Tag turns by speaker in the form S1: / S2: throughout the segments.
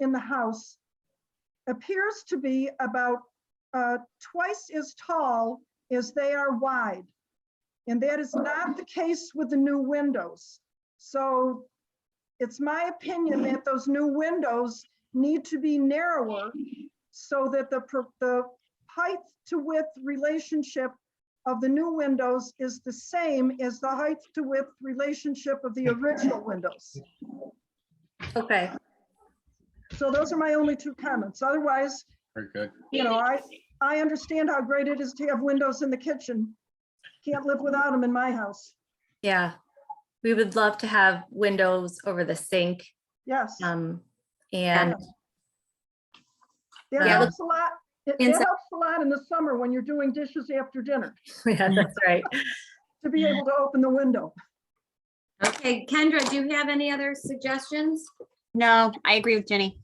S1: in the house appears to be about uh, twice as tall as they are wide. And that is not the case with the new windows. So it's my opinion that those new windows need to be narrower so that the, pro- the height to width relationship of the new windows is the same as the height to width relationship of the original windows.
S2: Okay,
S1: So those are my only two comments. Otherwise,
S3: Very good.
S1: you know, I, I understand how great it is to have windows in the kitchen. Can't live without them in my house.
S2: yeah. We would love to have windows over the sink.
S1: Yes,
S2: Um, and
S1: that
S2: yeah.
S1: helps a lot. It it
S2: Inside-
S1: helps a lot in the summer when you're doing dishes after dinner,
S2: yeah, that's right.
S1: to be able to open the window.
S4: Okay, Kendra, do you have any other suggestions?
S5: No, I agree with Jenny.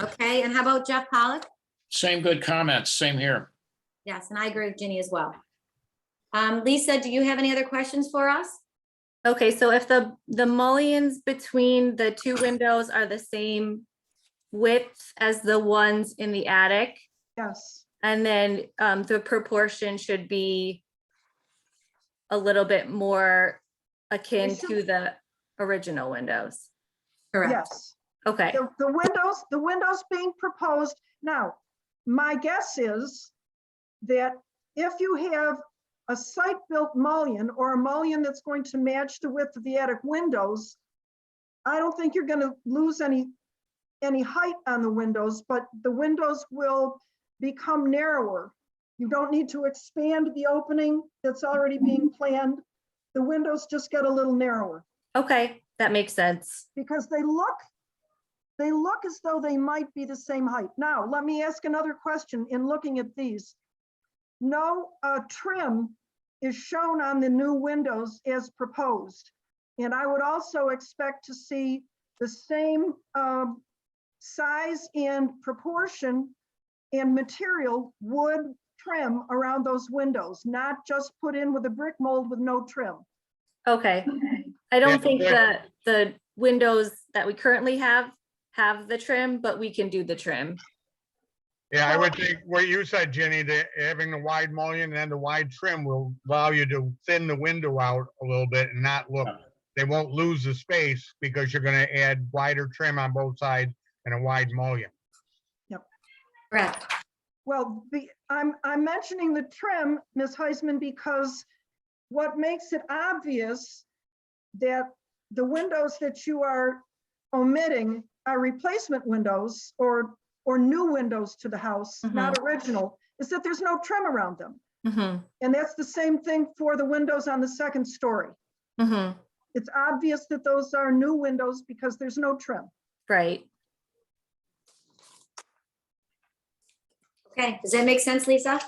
S4: Okay, and how about Jeff Pollock?
S3: Same good comments, same here.
S4: Yes, and I agree with Ginny as well. Um, Lisa, do you have any other questions for us?
S2: Okay, so if the, the mullions between the two windows are the same width as the ones in the attic,
S1: Yes,
S2: and then, um, the proportion should be a little bit more akin
S1: should-
S2: to the original windows.
S1: yes.
S2: Okay,
S1: The, the windows, the windows being proposed. Now, my guess is that if you have a site-built mullion or a mullion that's going to match the width of the attic windows, I don't think you're gonna lose any, any height on the windows, but the windows will become narrower. You don't need to expand the opening that's already being planned. The windows just get a little narrower
S2: okay, that makes sense.
S1: because they look, they look as though they might be the same height. Now, let me ask another question in looking at these. No uh, trim is shown on the new windows as proposed. And I would also expect to see the same um, size and proportion and material wood trim around those windows, not just put in with a brick mold with no trim.
S2: Okay, I don't
S3: but
S2: think
S3: there-
S2: that the windows that we currently have have the trim, but we can do the trim.
S6: Yeah, I would think what you said, Jenny, that having the wide mullion and the wide trim will allow you to thin the window out a little bit and not look. They won't lose the space because you're gonna add wider trim on both sides and a wide mullion.
S4: Correct.
S1: Well, the, I'm, I'm mentioning the trim, Ms. Heisman, because what makes it obvious that the windows that you are omitting are replacement windows or, or new windows to the house, not original, is that there's no trim around them.
S2: Mhm,
S1: And that's the same thing for the windows on the second story.
S2: mhm,
S1: It's obvious that those are new windows because there's no trim.
S2: Right,
S4: Okay, does that make sense, Lisa?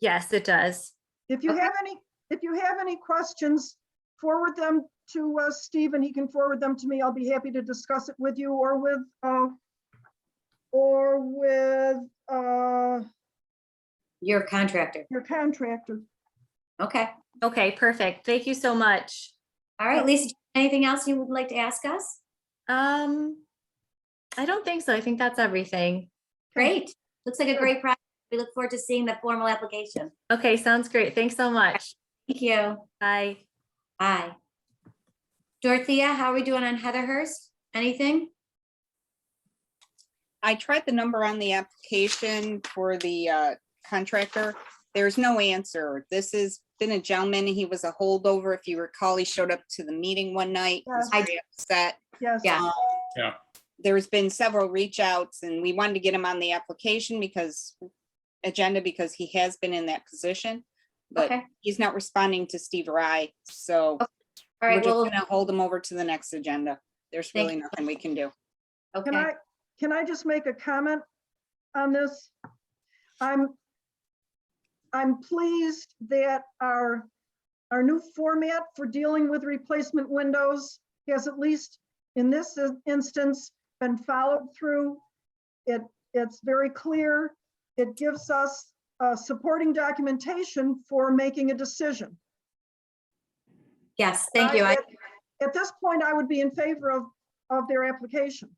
S2: yes, it does.
S1: If you
S4: Okay.
S1: have any, if you have any questions, forward them to uh, Steve and he can forward them to me. I'll be happy to discuss it with you or with, uh, or with uh,
S4: You're a contractor.
S1: your contractor.
S4: Okay.
S2: Okay, perfect. Thank you so much.
S4: All right, Lisa, anything else you would like to ask us?
S2: Um, I don't think so. I think that's everything.
S4: Great. Looks like a great project. We look forward to seeing the formal application.
S2: Okay, sounds great. Thanks so much.
S4: Thank you.
S2: Bye.
S4: Bye. Dorothea, how are we doing on Heatherhurst? Anything?
S5: I tried the number on the application for the uh, contractor. There's no answer. This has been a gentleman. He was a holdover. If you recall, he showed up to the meeting one night. was
S4: Yeah. I-
S5: very upset.
S1: Yes.
S4: Yeah.
S5: There's been several reach outs and we wanted to get him on the application because agenda, because he has been in that position. But
S4: Okay.
S5: he's not responding to Steve or I, so
S4: All
S5: we're
S4: right,
S5: just
S4: well,
S5: gonna hold him over to the next agenda. There's
S4: Thank
S5: really nothing we can do.
S1: Can
S4: okay.
S1: I, can I just make a comment on this? I'm, I'm pleased that our, our new format for dealing with replacement windows has at least in this in- instance been followed through. It, it's very clear. It gives us uh, supporting documentation for making a decision.
S4: Yes, thank you. I
S1: At this point, I would be in favor of, of their application.